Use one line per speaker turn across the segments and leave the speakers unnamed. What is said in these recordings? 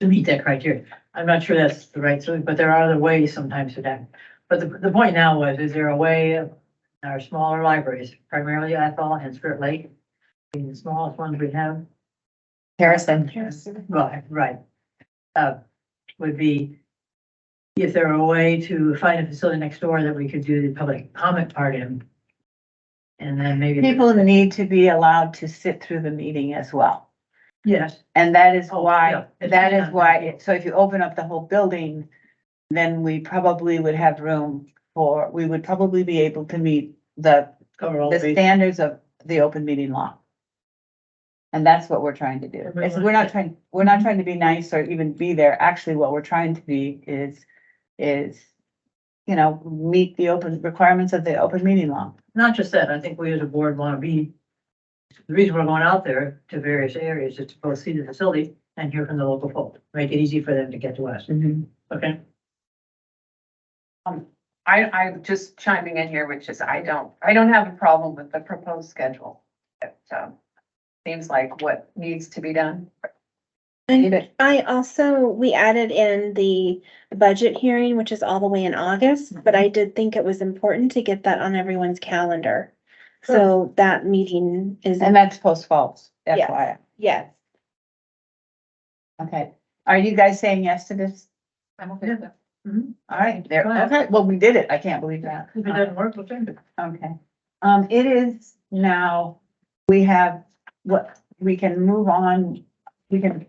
to meet that criteria. I'm not sure that's the right, solution, but there are other ways sometimes to that. But the, the point now was, is there a way of our smaller libraries, primarily Athol and Spirit Lake, being the smallest ones we have,
Harrison.
Right, right. Uh, would be if there were a way to find a facility next door that we could do the public comment part in. And then maybe.
People need to be allowed to sit through the meeting as well.
Yes,
And that is
Oh,
why,
yeah. It's
that is
not-
why, it- so if you open up the whole building, then we probably would have room for, we would probably be able to meet the,
cover all
the
bases.
standards of the open meeting law. And that's what we're trying to do.
And we
It's,
want-
we're not trying, we're
Mhm.
not trying to be nice or even be there. Actually, what we're trying to be is, is, you know, meet the open requirements of the open meeting law.
Not just that, I think we as a board want to be, the reason we're going out there to various areas is to both see the facility and hear from the local folk, make it easy for them to get to us, okay?
I, I'm just chiming in here, which is I don't, I don't have a problem with the proposed schedule. It, um, seems like what needs to be done.
And
I also, we added in the budget hearing, which is all the way in August, but I did think it was important to get that on everyone's calendar. So that meeting is,
that's post falls,
Yes.
FYI.
yes,
Okay, are you guys saying yes to this?
I'm okay with that.
All right, there,
Go ahead.
okay, well, we did it. I can't believe that.
If it doesn't work, we'll change it.
Okay, um, it is now, we have what, we can move on, we can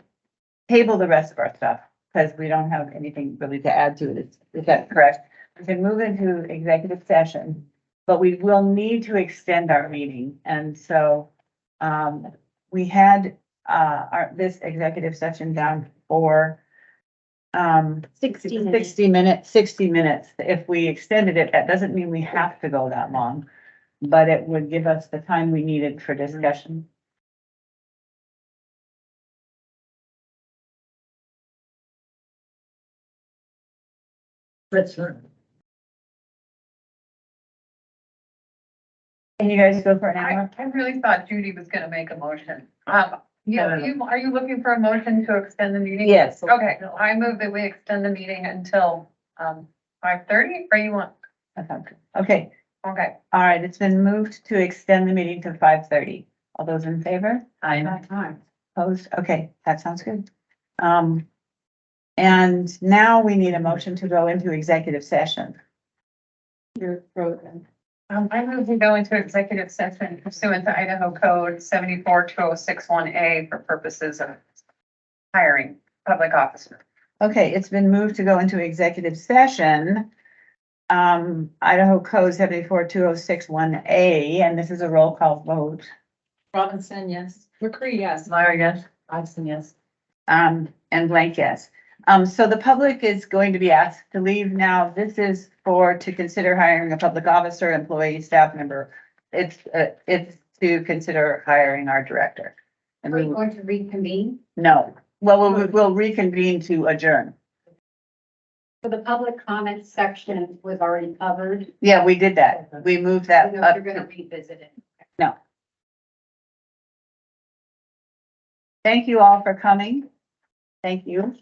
table the rest of our stuff, because we don't have anything really to add to it, is, is that correct? We can move into executive session, but we will need to extend our meeting, and so, um, we had, uh, our, this executive session down for, um,
sixty minutes.
Sixty minutes, sixty minutes. If we extended it, that doesn't mean we have to go that long. But it would give us the time we needed for
Mm-hmm.
discussion.
That's, uh,
Can you guys go for an
I,
hour?
I really thought Judy was gonna make a motion. Um, you,
No, no, no.
you, are you looking for a motion to extend the meeting?
Yes.
Okay, I move that we extend the meeting until, um, five thirty, or you want,
Oh.
Okay,
okay.
all right, it's been moved to extend the meeting to five thirty. All those in favor?
I,
Opposed? Okay, that sounds good. Um, and now we need a motion to go into executive session. You're frozen.
Um, I move we go into executive session pursuant to Idaho Code seventy-four two oh six one A for purposes of hiring public officer.
Okay, it's been moved to go into executive session. Um, Idaho Code seventy-four two oh six one A, and this is a roll call vote.
Robinson, yes. McCree, yes.
Myra, yes?
Hudson, yes.
Um, and blank yes. Um, so the public is going to be asked to leave now. This is for to consider hiring a public officer, employee, staff member. It's, uh, it's to consider hiring our director. And
Are we
we,
going to reconvene?
no, well, we'll, we'll reconvene to adjourn.
So the public comment section was already covered.
Yeah, we did that. We moved
I
that
don't know
up.
if You're gonna revisit it.
Thank you all for coming. Thank you.